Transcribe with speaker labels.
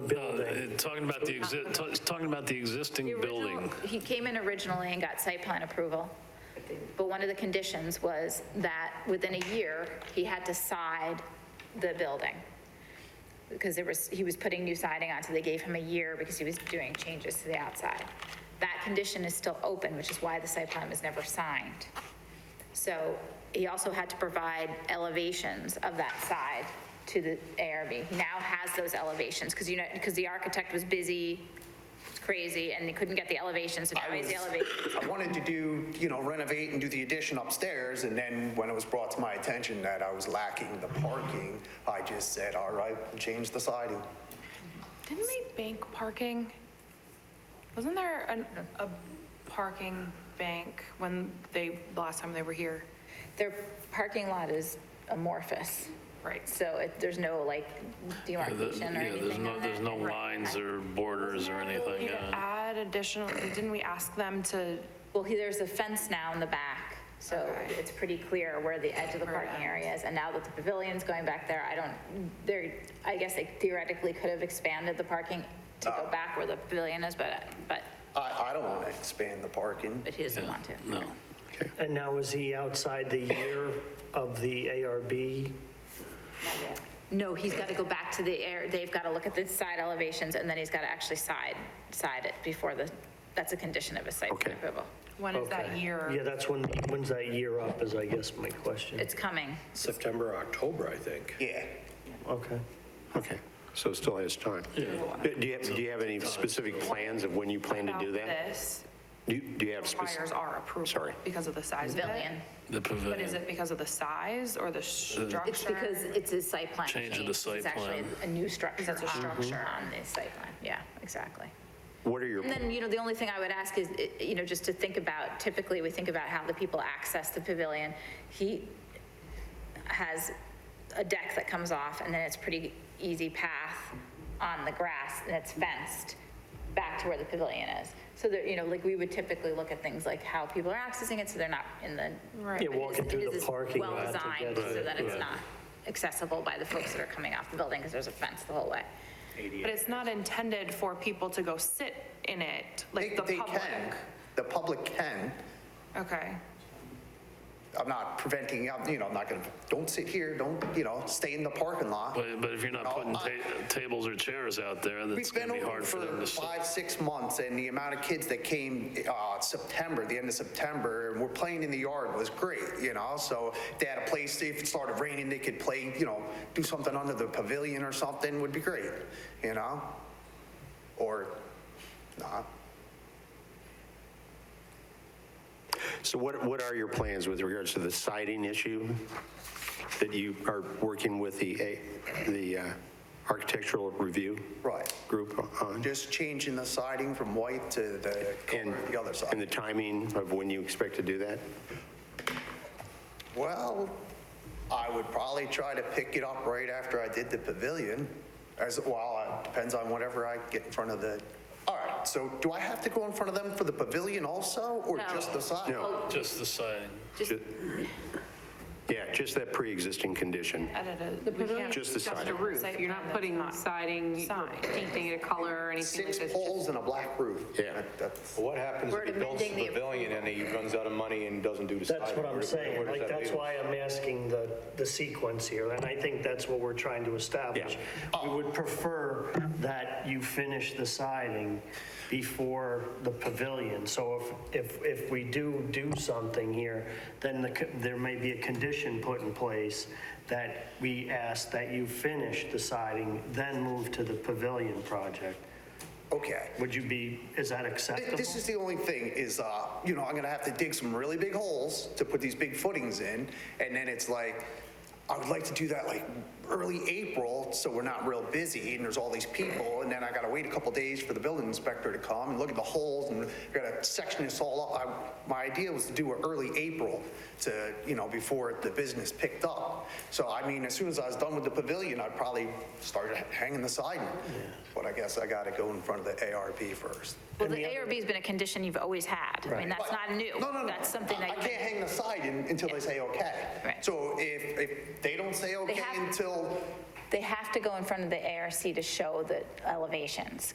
Speaker 1: Uh, talking about the, exi- ta- talking about the
Speaker 2: The
Speaker 1: existing
Speaker 2: original-
Speaker 1: building.
Speaker 2: He came in originally and got site plan approval, but one of the conditions was that within a year, he had to side the building. Because there was, he was putting new siding on, so they gave him a year because he was doing changes to the outside. That condition is still open, which is why the site plan was never signed. So he also had to provide elevations of that side to the ARB. He now has those elevations, because you know, because the architect was busy, it's crazy, and he couldn't get the elevations, so now
Speaker 3: I
Speaker 2: he's the
Speaker 3: was-
Speaker 2: elevation.
Speaker 3: I wanted to do, you know, renovate and do the addition upstairs, and then when it was brought to my attention that I was lacking the parking, I just said, all right, we'll change the siding.
Speaker 4: Didn't they bank parking? Wasn't there an, a parking bank when they, the last time they were here?
Speaker 2: Their parking lot is amorphous,
Speaker 4: Right.
Speaker 2: so it- there's no like
Speaker 1: Yeah, the-
Speaker 2: demarcation or
Speaker 1: yeah, there's
Speaker 2: anything
Speaker 1: no,
Speaker 2: on
Speaker 1: there's
Speaker 2: it.
Speaker 1: no lines or borders or anything,
Speaker 4: Need to
Speaker 1: yeah.
Speaker 4: Add additional, didn't we ask them to,
Speaker 2: Well, he- there's a fence now in the back, so
Speaker 4: Okay.
Speaker 2: it's pretty clear where the edge of the parking area is. And now that the pavilion's going back there, I don't, there, I guess they theoretically could have expanded the parking to go
Speaker 1: Oh.
Speaker 2: back where the pavilion is, but, but,
Speaker 3: I, I don't want to expand the parking.
Speaker 2: but he doesn't want to.
Speaker 1: No,
Speaker 5: And now is he outside the year of the ARB?
Speaker 2: No, he's got to go back to the air, they've got to look at the side elevations, and then he's got to actually side, side it before the, that's a condition of a site
Speaker 1: Okay.
Speaker 2: plan approval.
Speaker 4: when is that
Speaker 5: Okay.
Speaker 4: year?
Speaker 5: Yeah, that's when, when's that year up is I guess my question.
Speaker 2: It's coming.
Speaker 6: September, October, I think.
Speaker 3: Yeah.
Speaker 5: Okay.
Speaker 7: Okay, so it still has time. Do do you have, do you have any specific plans of when you plan to do
Speaker 4: About
Speaker 7: that?
Speaker 4: This
Speaker 7: Do you- do you have? spec-
Speaker 4: requires our approval.
Speaker 7: Sorry.
Speaker 4: Because of the size of it.
Speaker 2: Pavilion.
Speaker 1: the
Speaker 4: But is
Speaker 1: pavilion.
Speaker 4: it because of the size or the structure?
Speaker 2: It's because it's a site plan.
Speaker 1: Change of the site
Speaker 2: It's
Speaker 1: plan.
Speaker 2: actually a new structure.
Speaker 4: It's a structure.
Speaker 2: On the site plan, yeah, exactly.
Speaker 7: What are your,
Speaker 2: And then, you know, the only thing I would ask is, eh, you know, just to think about, typically, we think about how the people access the pavilion. He has a deck that comes off, and then it's pretty easy path on the grass, and it's fenced back to where the pavilion is. So that, you know, like, we would typically look at things like how people are accessing it, so they're not in the.
Speaker 4: Right.
Speaker 5: Yeah, walking
Speaker 2: It
Speaker 5: through
Speaker 2: is
Speaker 5: the parking lot to
Speaker 2: Well-designed,
Speaker 5: get it.
Speaker 2: so that it's
Speaker 1: Right.
Speaker 2: not accessible by the folks that are coming off the building, because there's a fence the whole way.
Speaker 4: But it's not intended for people to go sit in it, like
Speaker 3: They,
Speaker 4: the
Speaker 3: they
Speaker 4: public.
Speaker 3: can, the public can.
Speaker 4: Okay.
Speaker 3: I'm not preventing, I'm, you know, I'm not going to, don't sit here, don't, you know, stay in the parking lot.
Speaker 1: But, but if you're not
Speaker 3: No,
Speaker 1: putting
Speaker 3: I-
Speaker 1: ta- tables or chairs out there, that's
Speaker 3: We've
Speaker 1: going to
Speaker 3: been
Speaker 1: be
Speaker 3: open
Speaker 1: hard for them
Speaker 3: for
Speaker 1: to sit.
Speaker 3: five, six months, and the amount of kids that came uh, September, the end of September, and were playing in the yard was great, you know? So they had a place, if it started raining, they could play, you know, do something under the pavilion or something would be great, you know? Or not.
Speaker 7: so what, what are your plans with regards to the siding issue that you are working with the, A- the uh, architectural review
Speaker 3: Right.
Speaker 7: group on?
Speaker 3: Just changing the siding from white to the color
Speaker 7: And-
Speaker 3: of the other
Speaker 7: And the
Speaker 3: side.
Speaker 7: timing of when you expect to do that?
Speaker 3: Well, I would probably try to pick it up right after I did the pavilion, as, well, it depends on whatever I get in front of the, all right, so do I have to go in front of them for the pavilion also, or
Speaker 2: No.
Speaker 3: just the side?
Speaker 7: No,
Speaker 1: Just the siding.
Speaker 7: ju- yeah, just that pre-existing condition.
Speaker 4: Edited. We can't-
Speaker 7: Just the
Speaker 8: Just a
Speaker 7: siding.
Speaker 8: roof.
Speaker 4: Site plan,
Speaker 8: You're not
Speaker 4: that's
Speaker 8: putting
Speaker 4: not
Speaker 8: siding, or
Speaker 4: sign.
Speaker 8: painting it a color or anything like
Speaker 3: Six
Speaker 8: this. just-
Speaker 3: poles and a black roof.
Speaker 7: Yeah.
Speaker 3: That- That's,
Speaker 9: What happens
Speaker 2: We're
Speaker 9: if he builds
Speaker 2: amending
Speaker 9: the
Speaker 2: the
Speaker 9: pavilion and he runs out of money and doesn't do the siding?
Speaker 5: That's what
Speaker 9: Where
Speaker 5: I'm
Speaker 9: does-
Speaker 5: saying.
Speaker 9: where does
Speaker 5: Like,
Speaker 9: that
Speaker 5: that's
Speaker 9: leave
Speaker 5: why I'm asking the, the sequence here. And I think that's what we're trying to establish. We would prefer that you finish the siding before the pavilion. So if, if, if we do do something here, then the, co- there may be a condition put in place that we ask that you finish the siding, then move to the pavilion project.
Speaker 3: okay.
Speaker 5: Would you be, is that acceptable?
Speaker 3: This is the only thing is, uh, you know, I'm gonna have to dig some really big holes to put these big footings in. And then it's like, I would like to do that like early April, so we're not real busy and there's all these people. And then I gotta wait a couple days for the building inspector to come and look at the holes and I gotta section this all up. I- My idea was to do it early April to, you know, before the business picked up. So I mean, as soon as I was done with the pavilion, I probably started hanging the siding. But I guess I gotta go in front of the ARP first.
Speaker 2: Well, the ARB's been a condition you've always had. I mean, that's not new.
Speaker 3: No, no, no.
Speaker 2: That's something
Speaker 3: I
Speaker 2: that
Speaker 3: can't hang the siding until they say okay.
Speaker 2: Right.
Speaker 3: So if, if they don't say okay
Speaker 2: have-
Speaker 3: until,
Speaker 2: They have to go in front of the ARC to show the elevations,